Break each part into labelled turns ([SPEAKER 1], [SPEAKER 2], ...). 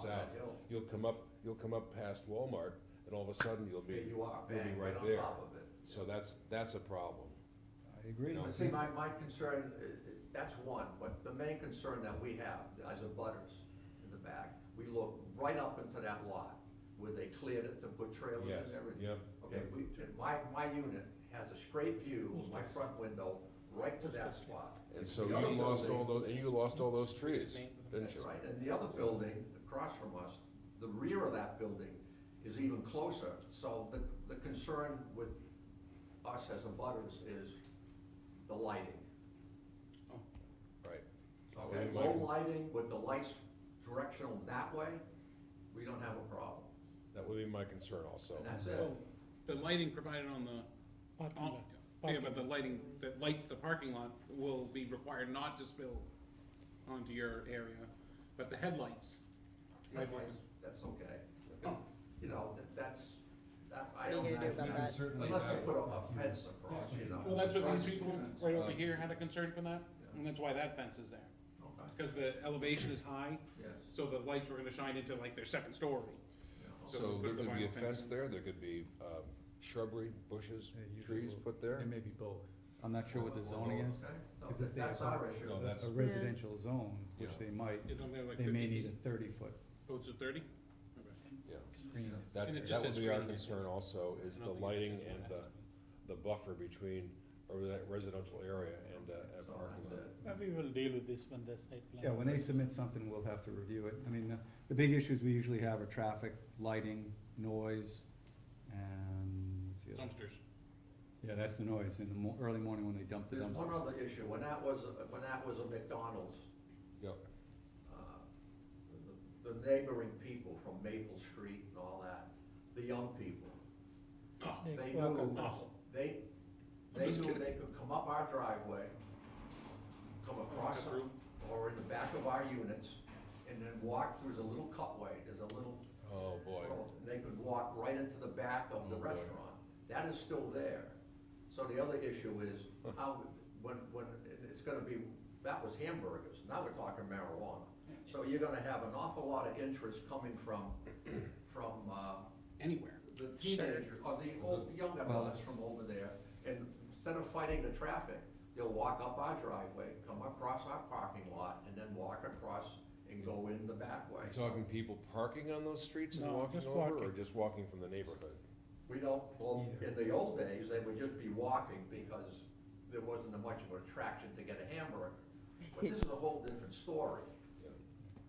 [SPEAKER 1] sides.
[SPEAKER 2] hill.
[SPEAKER 1] You'll come up, you'll come up past Walmart, and all of a sudden you'll
[SPEAKER 2] There
[SPEAKER 1] be,
[SPEAKER 2] you are,
[SPEAKER 1] we'll be
[SPEAKER 2] bang,
[SPEAKER 1] right
[SPEAKER 2] right on
[SPEAKER 1] there.
[SPEAKER 2] top of it.
[SPEAKER 1] so that's, that's a problem.
[SPEAKER 3] I agree.
[SPEAKER 1] No.
[SPEAKER 2] But see, my, my concern, uh, uh, that's one, but the main concern that we have as a butters in the back, we look right up into that lot where they cleared it to put trailers
[SPEAKER 1] Yes,
[SPEAKER 2] and everything.
[SPEAKER 1] yep.
[SPEAKER 2] Okay, we, and my, my unit has a straight view, of my front window, right to that spot.
[SPEAKER 1] And so
[SPEAKER 2] The other
[SPEAKER 1] you lost all
[SPEAKER 2] building-
[SPEAKER 1] those, and you lost all those trees, didn't
[SPEAKER 2] That's
[SPEAKER 1] you?
[SPEAKER 2] right, and the other building across from us, the rear of that building is even closer. So the, the concern with us as a butters is the lighting.
[SPEAKER 1] Right.
[SPEAKER 2] Okay,
[SPEAKER 1] And
[SPEAKER 2] low
[SPEAKER 1] like-
[SPEAKER 2] Oh, lighting with the lights directional that way, we don't have a problem,
[SPEAKER 1] That would be my concern also.
[SPEAKER 2] and that's it.
[SPEAKER 4] Well, Oh, the lighting provided on the, on, yeah, but the lighting that lights the parking lot will be required not to spill onto your area, but the headlights.
[SPEAKER 2] Headlights, That's okay, you know, that- that's, that,
[SPEAKER 5] What are you
[SPEAKER 2] I don't
[SPEAKER 5] gonna do about
[SPEAKER 2] have,
[SPEAKER 5] that?
[SPEAKER 6] Certainly
[SPEAKER 2] unless you
[SPEAKER 6] that-
[SPEAKER 2] put a a fence across, you know.
[SPEAKER 4] Well, that's what these
[SPEAKER 2] Fence.
[SPEAKER 4] people right over here had a concern for that, and that's why that fence is there,
[SPEAKER 2] Okay,
[SPEAKER 4] because the elevation is high,
[SPEAKER 2] yes,
[SPEAKER 4] so the lights were gonna shine into like their second story.
[SPEAKER 2] yeah, okay.
[SPEAKER 1] So
[SPEAKER 4] put
[SPEAKER 1] there
[SPEAKER 4] the
[SPEAKER 1] could be a
[SPEAKER 4] vinyl fence
[SPEAKER 1] fence
[SPEAKER 4] in.
[SPEAKER 1] there, there could be um, shrubbery, bushes,
[SPEAKER 3] Yeah, you could
[SPEAKER 1] trees
[SPEAKER 3] do it.
[SPEAKER 1] put there.
[SPEAKER 3] It may be both. I'm not sure what the zoning is.
[SPEAKER 2] Okay, so
[SPEAKER 3] Because if they
[SPEAKER 2] That's
[SPEAKER 3] have-
[SPEAKER 2] our issue.
[SPEAKER 1] No, that's-
[SPEAKER 3] A residential zone, which
[SPEAKER 1] Yeah.
[SPEAKER 3] they might,
[SPEAKER 4] It only had like
[SPEAKER 3] they may
[SPEAKER 4] fifty
[SPEAKER 3] need
[SPEAKER 4] feet.
[SPEAKER 3] a thirty-foot
[SPEAKER 4] Oh, it's a thirty?
[SPEAKER 1] Yeah,
[SPEAKER 3] screen.
[SPEAKER 1] that's,
[SPEAKER 4] it just
[SPEAKER 1] that would
[SPEAKER 4] says
[SPEAKER 1] be our
[SPEAKER 4] screening.
[SPEAKER 1] concern also, is the lighting and the, the buffer between, or that residential area and uh,
[SPEAKER 2] So
[SPEAKER 1] a parking
[SPEAKER 2] that's
[SPEAKER 1] lot.
[SPEAKER 2] it.
[SPEAKER 7] Maybe we'll deal with this when the site plan.
[SPEAKER 3] Yeah, when they submit something, we'll have to review it. I mean, the, the big issues we usually have are traffic, lighting, noise, and what's the other?
[SPEAKER 4] Dumpsters.
[SPEAKER 3] Yeah, that's the noise in the mo- early morning when they dump the
[SPEAKER 2] There's one
[SPEAKER 3] dumpsters.
[SPEAKER 2] other issue, when that was, a- when that was a McDonald's,
[SPEAKER 1] Yep,
[SPEAKER 2] uh, the- the neighboring people from Maple Street and all that, the young people,
[SPEAKER 4] Oh,
[SPEAKER 7] They
[SPEAKER 2] they
[SPEAKER 7] walk
[SPEAKER 2] knew,
[SPEAKER 4] across.
[SPEAKER 2] they,
[SPEAKER 4] I'm
[SPEAKER 2] they
[SPEAKER 4] just
[SPEAKER 2] knew
[SPEAKER 4] kidding.
[SPEAKER 2] they could come up our driveway, come across
[SPEAKER 4] Walk
[SPEAKER 2] our-
[SPEAKER 4] through.
[SPEAKER 2] or in the back of our units, and then walk through the little cutway, there's a little,
[SPEAKER 1] oh, boy.
[SPEAKER 2] road, and they could walk right into the back of the
[SPEAKER 1] Oh, boy.
[SPEAKER 2] restaurant. That is still there. So the other issue is, how, when, when, it's gonna be, that was hamburgers, now we're talking marijuana. So you're gonna have an awful lot of interest coming from, from, uh,
[SPEAKER 4] Anywhere.
[SPEAKER 2] the teenager, or the old, young adults from over there, and instead of fighting the traffic, they'll walk up our driveway, come across our parking lot, and then walk across and go in the back way.
[SPEAKER 1] Are you talking people parking on those streets and
[SPEAKER 7] No,
[SPEAKER 1] walking
[SPEAKER 7] just
[SPEAKER 1] over, or
[SPEAKER 7] walking.
[SPEAKER 1] just walking from the neighborhood?
[SPEAKER 2] We don't, well, in the old days, they would just be walking because there wasn't much of an attraction to get a hamburger. But this is a whole different story,
[SPEAKER 1] Yeah.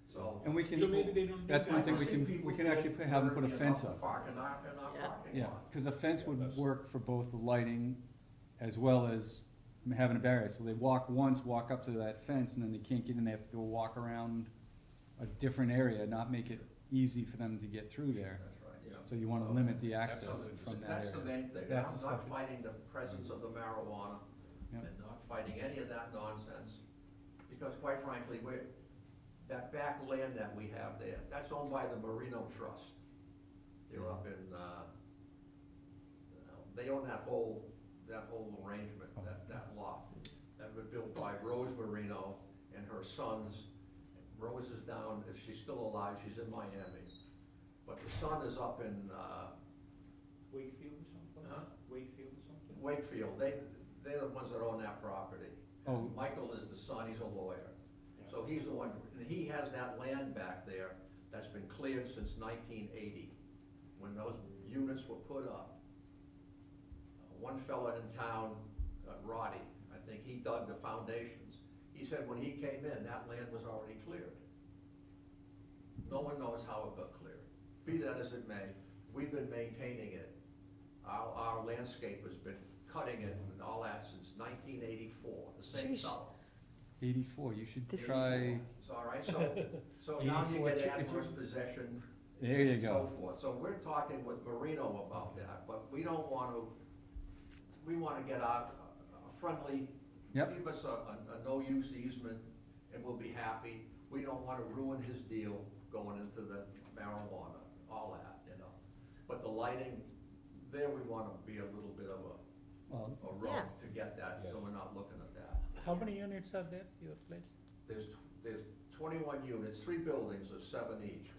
[SPEAKER 2] so.
[SPEAKER 3] And we
[SPEAKER 4] So maybe
[SPEAKER 3] can,
[SPEAKER 4] they don't do
[SPEAKER 3] that's
[SPEAKER 4] that.
[SPEAKER 3] one thing we
[SPEAKER 2] I've seen
[SPEAKER 3] can, we
[SPEAKER 2] people
[SPEAKER 3] can actually put- have them put a
[SPEAKER 2] literally
[SPEAKER 3] fence
[SPEAKER 2] in our
[SPEAKER 3] up.
[SPEAKER 2] Park in our, in our
[SPEAKER 5] Yeah.
[SPEAKER 2] parking
[SPEAKER 3] Yeah,
[SPEAKER 2] lot.
[SPEAKER 3] cause a fence
[SPEAKER 1] Yeah,
[SPEAKER 3] would
[SPEAKER 1] that's-
[SPEAKER 3] work for both the lighting as well as having a barrier, so they walk once, walk up to that fence, and then they can't get in, they have to go walk around a different area, not make it easy for them to get through there,
[SPEAKER 2] That's right, yeah.
[SPEAKER 3] so you wanna limit the access
[SPEAKER 2] Oh, Absolutely.
[SPEAKER 3] from that area.
[SPEAKER 2] That's the main thing, I'm
[SPEAKER 3] That's the
[SPEAKER 2] not
[SPEAKER 3] stuff-
[SPEAKER 2] fighting the presence of the marijuana
[SPEAKER 3] Yeah.
[SPEAKER 2] and not fighting any of that nonsense. Because quite frankly, we're, that back land that we have there, that's owned by the Marino Trust. They're up in, uh, you know, they own that whole, that whole arrangement, that, that lot. That was built by Rose Marino and her sons. Rose is down, if she's still alive, she's in Miami. But the son is up in, uh,
[SPEAKER 7] Wakefield or something?
[SPEAKER 2] Huh?
[SPEAKER 7] Wakefield or something?
[SPEAKER 2] Wakefield, they, they're the ones that own that property.
[SPEAKER 3] Oh.
[SPEAKER 2] Michael is the son, he's a lawyer. So he's the one, and he has that land back there that's been cleared since nineteen eighty, when those units were put up. Uh, One fella in town, uh, Roddy, I think he dug the foundations. He said when he came in, that land was already cleared. No one knows how it got cleared. Be that as it may, we've been maintaining it. Our, our landscaper's been cutting it and all that since nineteen eighty-four, the same
[SPEAKER 5] Jeez.
[SPEAKER 2] fellow.
[SPEAKER 3] Eighty-four, you should
[SPEAKER 5] This is-
[SPEAKER 3] try,
[SPEAKER 2] It's all right, so, so now you
[SPEAKER 3] 84,
[SPEAKER 2] get
[SPEAKER 3] if you-
[SPEAKER 2] adverse possession.
[SPEAKER 3] There you
[SPEAKER 2] and
[SPEAKER 3] go.
[SPEAKER 2] So forth, so we're talking with Marino about that, but we don't want to, we want to get out uh, a friendly.
[SPEAKER 3] Yep.
[SPEAKER 2] Give us a, a, a no-use easement, and we'll be happy, we don't want to ruin his deal going into the marijuana, all that, you know. But the lighting, there we want to be a little bit of a,
[SPEAKER 3] well,
[SPEAKER 2] a road
[SPEAKER 5] Yeah.
[SPEAKER 2] to get that, so
[SPEAKER 1] Yes.
[SPEAKER 2] we're not looking at that.
[SPEAKER 7] How many units are there, your place?
[SPEAKER 2] There's, there's twenty-one units, three buildings of seven each.